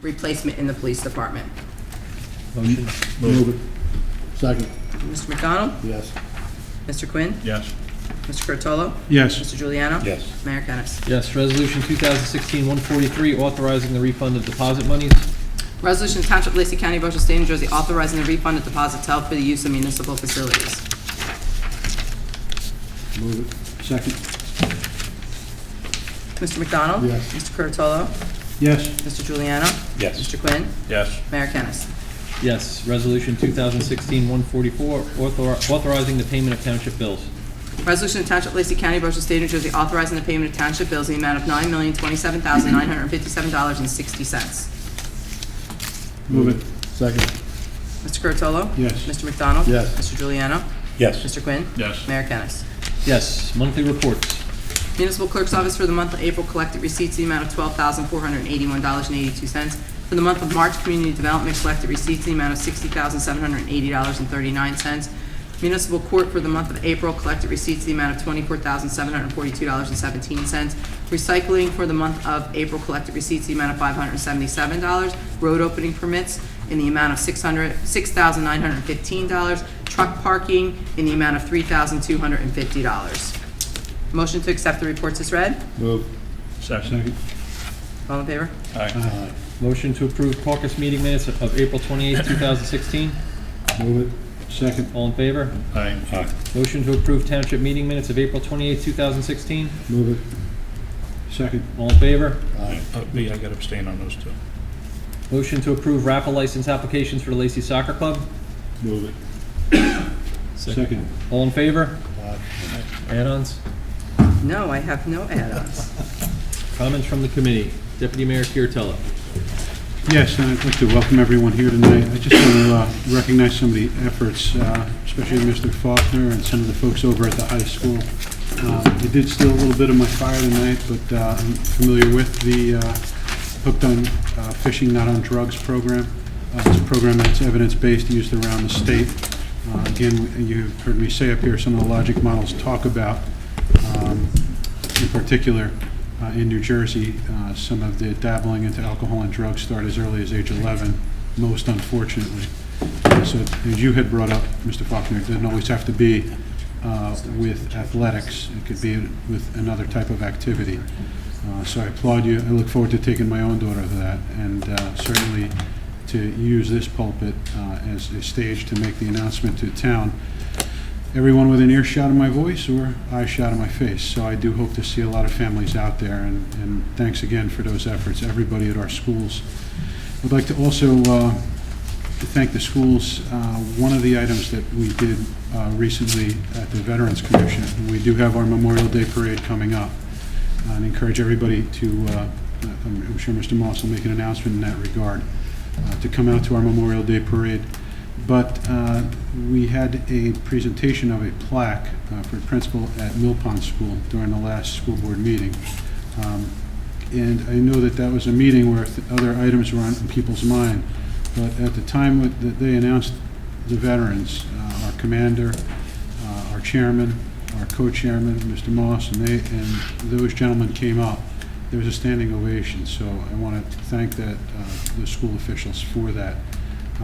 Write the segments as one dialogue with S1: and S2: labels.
S1: replacement in the police department.
S2: Motion?
S3: Move it. Second,
S1: Mr. McDonald?
S3: yes.
S1: Mr. Quinn?
S2: Yes.
S1: Mr. Curatolo?
S3: Yes.
S1: Mr. Juliano?
S3: Yes.
S1: Mayor Kennas.
S4: Yes, resolution 2016-143, authorizing the refund of deposit monies.
S1: Resolution to Township of Lacey County, Ocean State, New Jersey, authorizing the refund of deposits held for the use of municipal facilities.
S3: Move it. Second,
S1: Mr. McDonald?
S3: Yes.
S1: Mr. Curatolo?
S3: yes.
S1: Mr. Juliano?
S3: Yes.
S1: Mr. Quinn?
S2: Yes.
S1: Mayor Kennas.
S4: Yes, resolution 2016-144, author- authorizing the payment of township bills.
S1: Resolution to Township of Lacey County, Ocean State, New Jersey, authorizing the payment of township bills in the amount of nine million twenty-seven thousand nine hundred fifty-seven dollars and sixty cents.
S3: Move it. Second,
S1: Mr. Curatolo?
S3: Yes.
S1: Mr. McDonald?
S3: Yes.
S1: Mr. Juliano?
S3: yes.
S1: Mr. Quinn?
S2: Yes.
S1: Mayor Kennas.
S4: Yes, monthly reports.
S1: Municipal Clerk's Office for the month of April collected receipts in the amount of twelve thousand four hundred and eighty-one dollars and eighty-two cents. For the month of March, Community Development collected receipts in the amount of sixty thousand seven hundred and eighty dollars and thirty-nine cents. Municipal Court for the month of April collected receipts in the amount of twenty-four thousand seven hundred and forty-two dollars and seventeen cents. Recycling for the month of April collected receipts in the amount of five hundred and seventy-seven dollars. Road opening permits in the amount of six hundred, six thousand nine hundred and fifteen dollars. Truck parking in the amount of three thousand two hundred and fifty dollars. Motion to accept the reports is read.
S3: Move.
S2: Second.
S1: All in favor?
S2: Aye.
S3: Aye.
S4: Motion to approve caucus meeting minutes of April 28, 2016.
S3: Move it. Second,
S4: All in favor?
S2: Aye.
S3: aye.
S4: Motion to approve township meeting minutes of April 28, 2016.
S3: Move it. Second,
S4: All in favor?
S3: aye.
S2: Uh, Me, I got abstain on those two.
S4: Motion to approve raffle license applications for the Lacey Soccer Club.
S3: Move it. Second,
S4: All in favor?
S3: aye.
S4: Add-ons?
S1: No, I have no add-ons.
S4: Comments from the committee? Deputy Mayor Kuratello.
S5: Yes, and I'd like to welcome everyone here tonight. I just want to uh, recognize some of the efforts, uh, especially Mr. Faulkner and some of the folks over at the high school. Um, I did steal a little bit of my fire tonight, but uh, I'm familiar with the uh, Hooked on uh, Fishing Not on Drugs program. Uh, It's a program that's evidence-based, used around the state. Uh, Again, you've heard me say up here, some of the logic models talk about um, in particular, uh, in New Jersey, uh, some of the dabbling into alcohol and drugs start as early as age 11, most unfortunately. So as you had brought up, Mr. Faulkner, it doesn't always have to be uh, with athletics. It could be with another type of activity. Uh, So I applaud you. I look forward to taking my own daughter to that, and uh, certainly to use this pulpit uh, as a stage to make the announcement to town everyone within earshot of my voice or eye shot of my face. So I do hope to see a lot of families out there, and, and thanks again for those efforts, everybody at our schools. I'd like to also uh, to thank the schools. Uh, One of the items that we did uh, recently at the Veterans Commission, we do have our Memorial Day Parade coming up, Uh, and encourage everybody to, uh, I'm I'm sure Mr. Moss will make an announcement in that regard, uh, to come out to our Memorial Day Parade. But uh, we had a presentation of a plaque uh, for a principal at Mill Pond School during the last school board meeting. Um, And I know that that was a meeting where th- other items were on people's mind, but at the time when- that they announced the veterans, uh, our commander, uh, our chairman, our co-chairman, Mr. Moss, and they, and those gentlemen came up, there was a standing ovation, so I want to thank that, uh, the school officials for that,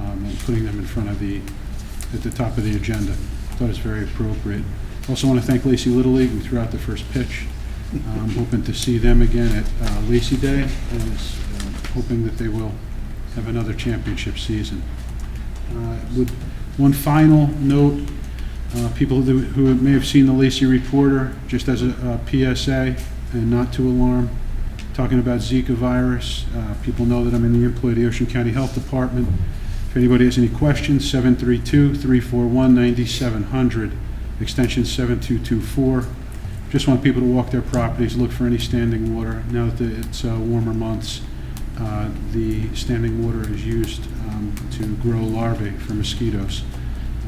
S5: um, and putting them in front of the, at the top of the agenda. Thought it was very appropriate. Also want to thank Lacey Little League, who threw out the first pitch. I'm hoping to see them again at uh, Lacey Day, and is, uh, hoping that they will have another championship season. Uh, With one final note, uh, people who who may have seen the Lacey Reporter, just as a uh, PSA, and not to alarm, talking about Zika virus, uh, people know that I'm in the employ of the Ocean County Health Department. If anybody has any questions, 732-341-9700, extension 7224. Just want people to walk their properties, look for any standing water. Now that the- it's uh, warmer months, uh, the standing water is used um, to grow larvae for mosquitoes.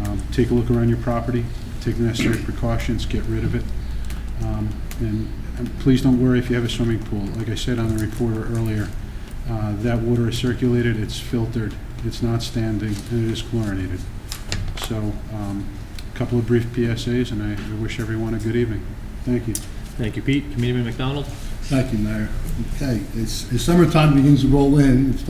S5: Um, Take a look around your property, take the necessary precautions, get rid of it. Um, And and please don't worry if you have a swimming pool. Like I said on the reporter earlier, uh, that water is circulated, it's filtered, it's not standing, and it is chlorinated. So, um, a couple of brief PSAs, and I I wish everyone a good evening. Thank you.
S4: Thank you, Pete. Committeeman McDonald.
S3: Thank you, Mayor. Okay, it's, as summertime begins to roll in, it's